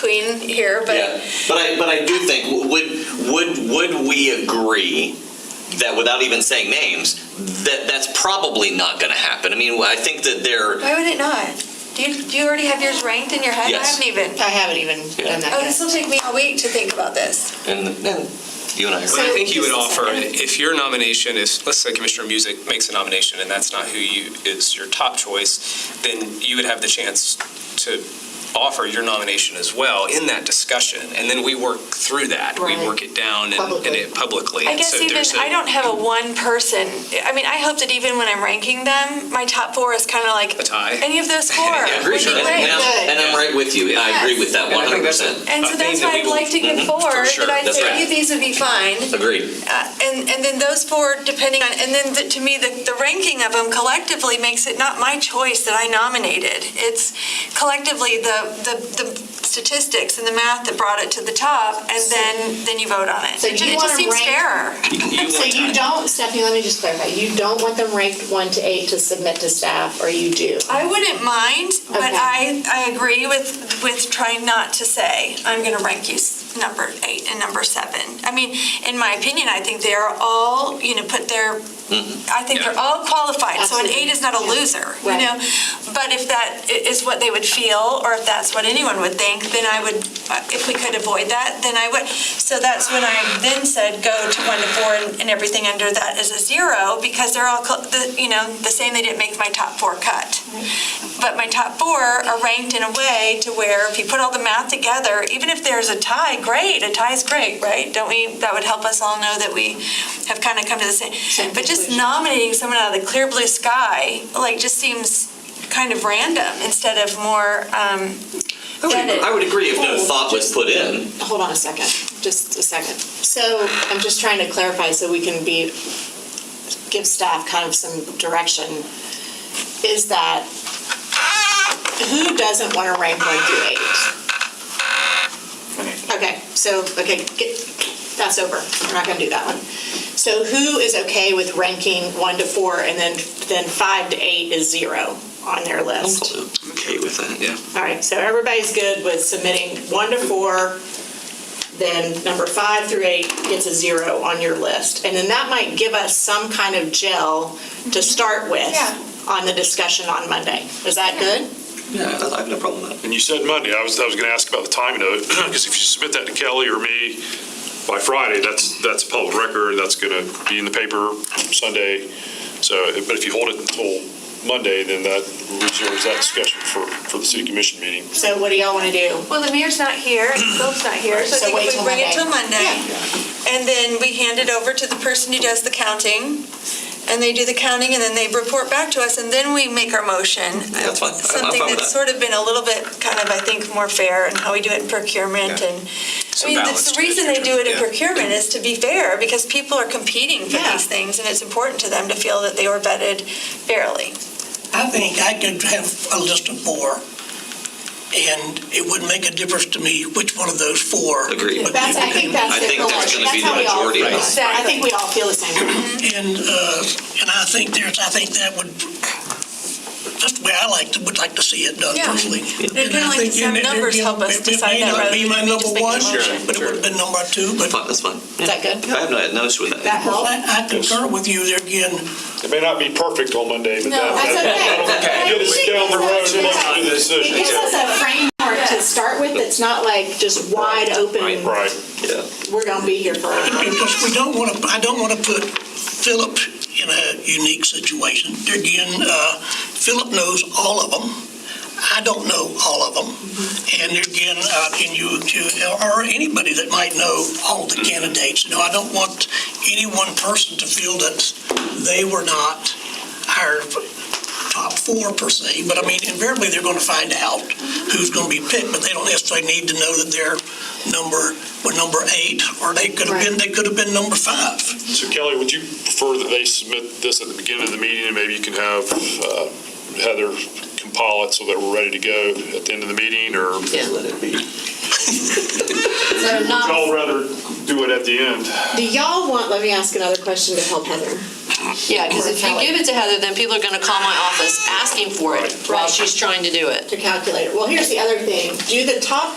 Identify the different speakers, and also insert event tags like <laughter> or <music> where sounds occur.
Speaker 1: between here, but
Speaker 2: Yeah, but I, but I do think, w- would, would, would we agree that without even saying names, that that's probably not gonna happen? I mean, I think that there,
Speaker 1: why would it not? Do you, do you already have yours ranked in your head?
Speaker 2: Yes.
Speaker 1: I haven't even.
Speaker 3: I haven't even done that
Speaker 1: Oh,
Speaker 3: yet.
Speaker 1: this will take me a week to think about this.
Speaker 2: and, and you and I
Speaker 4: But
Speaker 2: agree.
Speaker 4: I
Speaker 1: So
Speaker 4: think you would
Speaker 1: just a
Speaker 4: offer,
Speaker 1: second.
Speaker 4: if your nomination is, let's say Commissioner Music makes a nomination and that's not who you, is your top choice, then you would have the chance to offer your nomination as well in that discussion. And then we work through that. We
Speaker 3: Right.
Speaker 4: work it down and- and it publicly.
Speaker 1: I
Speaker 4: And
Speaker 1: guess
Speaker 4: so
Speaker 1: even
Speaker 4: there's a-
Speaker 1: I don't have a one person. I mean, I hope that even when I'm ranking them, my top four is kind of like
Speaker 4: A tie.
Speaker 1: Any of those four
Speaker 4: <laughs> Yeah,
Speaker 1: would be
Speaker 4: sure.
Speaker 2: And
Speaker 1: great.
Speaker 2: I'm- and I'm right with you, I agree with that
Speaker 4: And I
Speaker 2: one
Speaker 4: think
Speaker 2: hundred
Speaker 4: that's a-
Speaker 2: percent,
Speaker 1: And
Speaker 4: I
Speaker 1: so
Speaker 4: think
Speaker 1: that's
Speaker 4: that
Speaker 1: why
Speaker 4: we
Speaker 1: I'd
Speaker 4: will-
Speaker 1: like to get
Speaker 4: Mhm,
Speaker 1: four.
Speaker 4: <laughs> for sure,
Speaker 1: That I'd
Speaker 4: that's
Speaker 1: say
Speaker 4: right.
Speaker 1: "Hey, these would be fine.
Speaker 2: agreed.
Speaker 1: Uh, and and then those four, depending on, and then the, to me, the, the ranking of them collectively makes it not my choice that I nominated. It's collectively the, the, the statistics and the math that brought it to the top, and then then you vote on it.
Speaker 3: So
Speaker 1: it, ju-
Speaker 3: you
Speaker 1: it just
Speaker 3: wanna
Speaker 1: seems
Speaker 3: rank-
Speaker 1: fairer.
Speaker 4: you
Speaker 3: So
Speaker 4: want
Speaker 3: you
Speaker 4: time.
Speaker 3: don't, Stephanie, let me just clarify, you don't want them ranked one to eight to submit to staff, or you do?
Speaker 1: I wouldn't mind, but
Speaker 3: Okay.
Speaker 1: I I agree with with trying not to say I'm going to rank you s- number eight and number seven. I mean, in my opinion, I think they are all you know put their I think they're
Speaker 4: Yeah.
Speaker 1: all qualified, so an
Speaker 3: Absolutely.
Speaker 1: eight is not a
Speaker 3: Yeah.
Speaker 1: loser, you
Speaker 3: Right.
Speaker 1: know? But if that i- is what they would feel, or if that's what anyone would think, then I would, uh, if we could avoid that, then I would. So that's when I then said, go to one to four, and and everything under that is a zero, because they're all, cl- the- you know, the same, they didn't make my top four cut. But my top four are ranked in a way to where if you put all the math together, even if there's a tie, great, a tie is great, right? Don't we, that would help us all know that we have kind of come to the same, but just
Speaker 3: conclusion.
Speaker 1: nominating someone out of the clear blue sky, like, just seems kind of random instead of more, um,
Speaker 2: I would-
Speaker 1: vetted.
Speaker 2: I would agree if
Speaker 4: Oh.
Speaker 2: no thought was put in,
Speaker 3: Hold on a second, just a second. So I'm just trying to clarify so we can be, give staff kind of some direction. Is that, who doesn't want to rank one through eight? Okay, so, okay, get, that's over. We're not going to do that one. So who is okay with ranking one to four and then, then five to eight is zero on their list?
Speaker 2: okay with that, yeah.
Speaker 3: All right, so everybody's good with submitting one to four, then number five through eight gets a zero on your list. And then that might give us some kind of gel to start with
Speaker 1: Yeah.
Speaker 3: on the discussion on Monday. Is that good?
Speaker 2: Yeah, I I have no problem with that.
Speaker 5: And you said Monday, I was, I was gonna ask about the timing of it, because if you submit that to Kelly or me by Friday, that's, that's public record, that's gonna be in the paper Sunday. So, but if you hold it until Monday, then that reserves that discussion for, for the city commission meeting.
Speaker 3: So what do y'all want to do?
Speaker 1: well, the mayor's not here, Phil's not here, so I
Speaker 3: So
Speaker 1: think
Speaker 3: wait
Speaker 1: if we
Speaker 3: till
Speaker 1: bring it
Speaker 3: Monday.
Speaker 1: till Monday. And then we hand it over to the person who does the counting, and they do the counting, and then they report back to us, and then we make our motion.
Speaker 2: That's fine. I'm- I'm
Speaker 1: Something
Speaker 2: fine with
Speaker 1: that's
Speaker 2: that.
Speaker 1: sort of been a little bit, kind of, I think, more fair in how we do it in procurement
Speaker 4: Yeah.
Speaker 1: and I
Speaker 4: Some
Speaker 1: mean,
Speaker 4: balance
Speaker 1: the- the
Speaker 4: to
Speaker 1: reason they do it in
Speaker 4: Yeah.
Speaker 1: procurement is to be fair, because people are competing for
Speaker 3: Yeah.
Speaker 1: these things, and it's important to them to feel that they were vetted fairly.
Speaker 6: I think I could have a list of four, and it wouldn't make a difference to me which one of those four.
Speaker 2: Agreed.
Speaker 6: would be-
Speaker 3: That's, I think that's
Speaker 2: I
Speaker 3: the
Speaker 2: think that's
Speaker 3: collective.
Speaker 2: gonna be
Speaker 3: how
Speaker 2: the
Speaker 3: we all
Speaker 2: majority of
Speaker 3: feel.
Speaker 2: us.
Speaker 3: I think we all feel the same. way.
Speaker 6: And, uh, and I think there's, I think that would, that's the way I like, to would like to see it done
Speaker 1: Yeah.
Speaker 6: personally.
Speaker 1: I'd kinda
Speaker 6: And I
Speaker 1: like to
Speaker 6: think,
Speaker 1: see
Speaker 6: and
Speaker 1: our
Speaker 6: it-
Speaker 1: numbers
Speaker 6: it-
Speaker 1: help us
Speaker 6: it-
Speaker 1: decide that rather
Speaker 6: It may not
Speaker 1: than
Speaker 6: be
Speaker 1: just
Speaker 6: my number
Speaker 1: making a
Speaker 6: one,
Speaker 1: motion.
Speaker 6: but it would have been number two, but
Speaker 2: Fine, that's fine.
Speaker 3: Is that good?
Speaker 2: I have no, no issue with that.
Speaker 3: That
Speaker 6: well,
Speaker 3: help?
Speaker 6: I I concur with you there again.
Speaker 5: It may not be perfect on Monday, but that,
Speaker 3: That's okay.
Speaker 5: that'll get us down the road and make the decision.
Speaker 3: It gives us a framework to start with that's not like just wide open,
Speaker 5: Right.
Speaker 2: Yeah.
Speaker 3: we're going to be here forever.
Speaker 6: Because we don't want to, I don't want to put Philip in a unique situation. There Again, uh, Philip knows all of them. I don't know all of them. And there again, uh, and you, you- or anybody that might know all the candidates, you know, I don't want any one person to feel that they were not our top four per se, but I mean, invariably, they're going to find out who's going to be picked, but they don't necessarily need to know that they're number, were number eight, or they could have been, they could have been number five.
Speaker 5: So Kelly, would you prefer that they submit this at the beginning of the meeting, and maybe you can have uh, Heather compile it so that we're ready to go at the end of the meeting, or would
Speaker 2: Let it be.
Speaker 3: <laughs> So not
Speaker 5: y'all rather do it at the end?
Speaker 3: Do y'all want, let me ask another question to help Heather.
Speaker 7: Yeah, because if you
Speaker 3: Kelly.
Speaker 7: give it to Heather, then people are gonna call my office asking for it while
Speaker 3: Right.
Speaker 7: she's trying to do it.
Speaker 3: To calculate it. Well, here's the other thing. Do the top